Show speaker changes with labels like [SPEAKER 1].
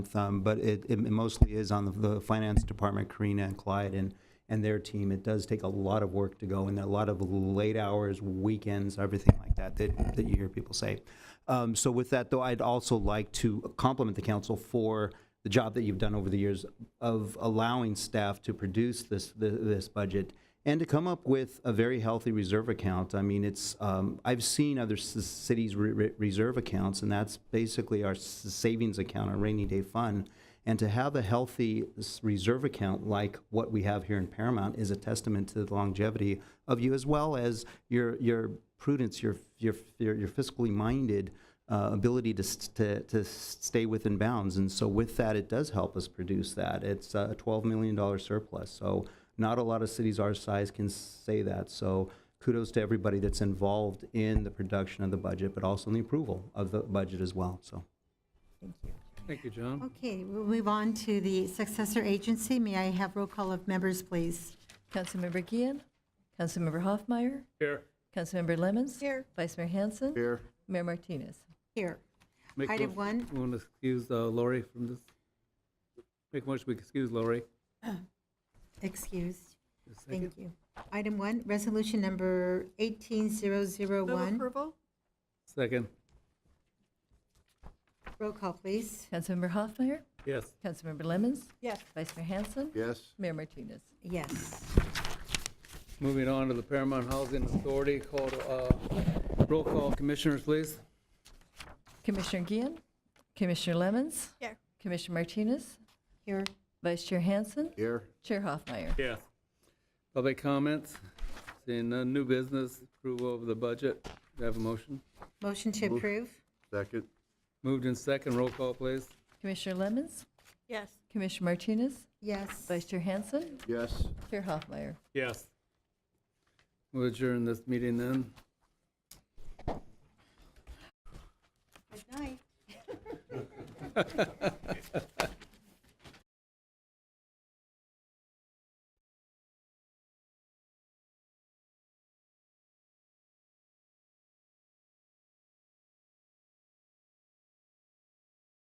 [SPEAKER 1] um, but it, it mostly is on the, the finance department, Karina and Clyde and, and their team. It does take a lot of work to go and a lot of late hours, weekends, everything like that, that, that you hear people say. Um, so with that though, I'd also like to compliment the council for the job that you've done over the years of allowing staff to produce this, th- this budget and to come up with a very healthy reserve account. I mean, it's, um, I've seen other c- cities' re- re- reserve accounts, and that's basically our s- savings account, our rainy day fund. And to have a healthy s- reserve account like what we have here in Paramount is a testament to the longevity of you, as well as your your prudence, your your your, your fiscally minded uh, ability to, s- to, to stay within bounds. And so with that, it does help us produce that. It's a $12 million surplus. So not a lot of cities our size can say that. So kudos to everybody that's involved in the production of the budget, but also in the approval of the budget as well. So
[SPEAKER 2] Thank you, John.
[SPEAKER 3] Okay, we'll move on to the successor agency. May I have roll call of members, please?
[SPEAKER 4] Councilmember Gian, Councilmember Hoffmeyer,
[SPEAKER 2] Here.
[SPEAKER 4] Councilmember Lemmons.
[SPEAKER 3] Here.
[SPEAKER 4] Vice Mayor Hanson. Here. Mayor Martinez.
[SPEAKER 3] Here.
[SPEAKER 2] Make
[SPEAKER 3] Item
[SPEAKER 2] motion-
[SPEAKER 3] one.
[SPEAKER 2] we Want to excuse uh, Lori from this? Make a motion, we excuse Lori.
[SPEAKER 3] Excused.
[SPEAKER 2] A second.
[SPEAKER 3] Thank you. Item one, resolution number 18001.
[SPEAKER 5] approval?
[SPEAKER 2] Second,
[SPEAKER 3] Roll call, please.
[SPEAKER 4] Councilmember Hoffmeyer,
[SPEAKER 2] yes.
[SPEAKER 4] Councilmember Lemmons,
[SPEAKER 5] Yes.
[SPEAKER 4] Vice Mayor Hanson.
[SPEAKER 6] Yes,
[SPEAKER 4] Mayor Martinez.
[SPEAKER 3] Yes.
[SPEAKER 2] Moving on to the Paramount Housing Authority, call to, uh, roll call, commissioners, please.
[SPEAKER 4] Commissioner Gian, Commissioner Lemmons.
[SPEAKER 5] Here.
[SPEAKER 4] Commissioner Martinez,
[SPEAKER 3] Here.
[SPEAKER 4] Vice Chair Hanson,
[SPEAKER 6] here,
[SPEAKER 4] Chair Hoffmeyer.
[SPEAKER 2] Yes. Public comments, seeing none, new business, approval of the budget, Do I have a motion.
[SPEAKER 3] Motion to approve?
[SPEAKER 6] second,
[SPEAKER 2] Moved in second, roll call, please.
[SPEAKER 4] Commissioner Lemmons,
[SPEAKER 5] Yes.
[SPEAKER 4] Commissioner Martinez,
[SPEAKER 3] Yes.
[SPEAKER 4] Vice Chair Hanson,
[SPEAKER 6] yes,
[SPEAKER 4] Chair Hoffmeyer.
[SPEAKER 2] Yes. We'll adjourn this meeting then.
[SPEAKER 3] Good night.